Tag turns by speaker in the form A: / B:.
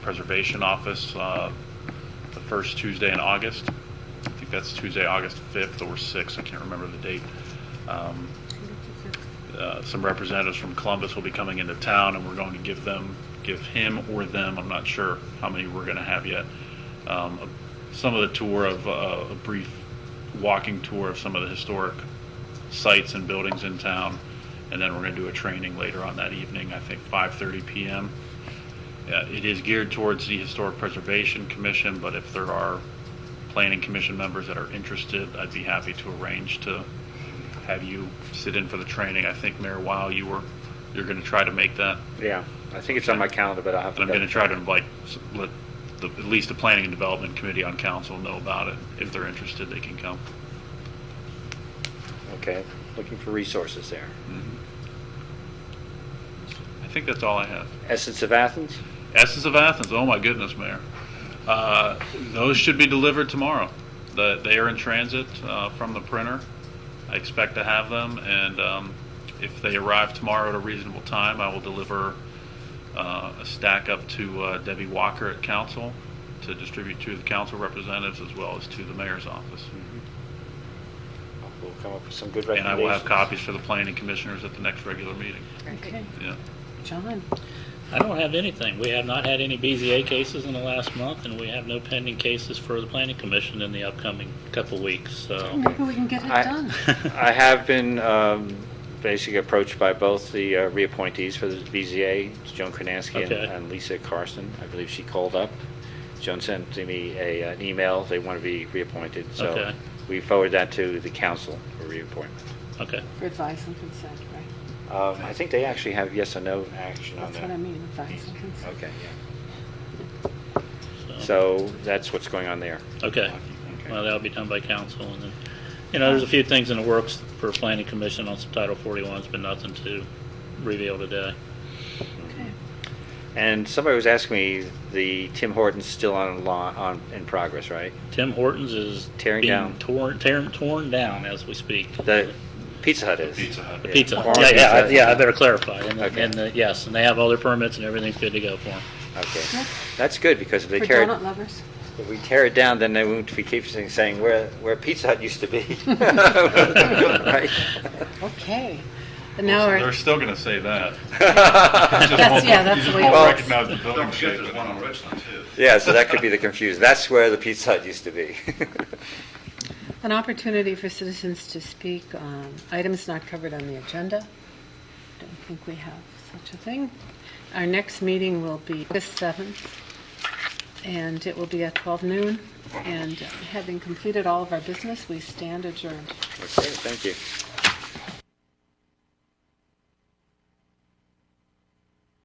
A: Preservation Office uh, the first Tuesday in August. I think that's Tuesday, August 5th or 6th, I can't remember the date. Um, uh, Some representatives from Columbus will be coming into town, and we're going to give them, give him or them, I'm not sure how many we're going to have yet, um, a- some of the tour of, uh, a brief walking tour of some of the historic sites and buildings in town, and then we're going to do a training later on that evening, I think 5:30 PM. Uh, It is geared towards the Historic Preservation Commission, but if there are planning commission members that are interested, I'd be happy to arrange to have you sit in for the training. I think Mayor Wow, you were, you're going to try to make that.
B: Yeah, I think it's on my calendar, but I'll have to.
A: And I'm going to try
B: double-
A: to invite, s- let, the- at least the Planning and Development Committee on Council know about it. If they're interested, they can come.
B: Okay, looking for resources there.
A: I think that's all I have.
B: Essence of Athens?
A: Essence of Athens, oh my goodness, Mayor. Uh, Those should be delivered tomorrow. The- They are in transit uh, from the printer. I expect to have them, and um, if they arrive tomorrow at a reasonable time, I will deliver uh, a stack up to uh, Debbie Walker at council to distribute to the council representatives as well as to the mayor's office.
B: We'll come up with some good recommendations.
A: And I will have copies for the planning commissioners at the next regular meeting.
C: Okay,
A: Yeah.
C: John,
D: I don't have anything. We have not had any BZA cases in the last month, and we have no pending cases for the Planning Commission in the upcoming couple weeks, so.
C: maybe we can get it
B: I-
C: done.
B: I have been um, basically approached by both the uh, reappointees for the BZA, it's Joan Kronansky and-
D: Okay.
B: and Lisa Carson. I believe she called up. Joan sent to me a, uh, an email, they want to be reappointed. So
D: Okay.
B: we forward that to the council for reappointment.
D: Okay.
C: For advice and consent, right?
B: Um, I think they actually have yes or no action on
C: That's
B: that.
C: what I mean, advice and consent.
B: Okay, yeah. So that's what's going on there.
D: Okay.
B: Okay.
D: Well, that'll be done by council, and then, you know, there's a few things in the works for Planning Commission on some Title 41s, but nothing to reveal today.
C: Okay.
B: And somebody was asking me, the Tim Hortons still on, law, on, in progress, right?
D: Tim Hortons is
B: Tearing
D: being
B: down.
D: torn, tearing- torn down as we speak.
B: The Pizza Hut is.
A: Pizza Hut.
D: The
B: Yeah.
D: pizza,
B: Orange
D: yeah, yeah, I-
B: Pizza.
D: yeah, I better clarify. And, the-
B: Okay.
D: and, the- yes, and they have all their permits and everything's good to go for them.
B: Okay.
C: Yep.
B: That's good, because if they
C: For
B: tear,
C: donut
B: it-
C: lovers.
B: if we tear it down, then they won't be keep saying- saying where, where Pizza Hut used to be. Right?
C: Okay. And now
A: They're
C: we're,
A: still going to say that.
C: that's, yeah, that's the way it
B: Well-
C: works.
A: Recognize the building
E: Don't forget
A: shape.
E: there's one on Richland too.
B: Yeah, so that could be the confusion. That's where the Pizza Hut used to be.
C: An opportunity for citizens to speak on items not covered on the agenda. Don't think we have such a thing. Our next meeting will be August 7th, and it will be at 12 noon. And having completed all of our business, we stand adjourned.
B: Okay, thank you.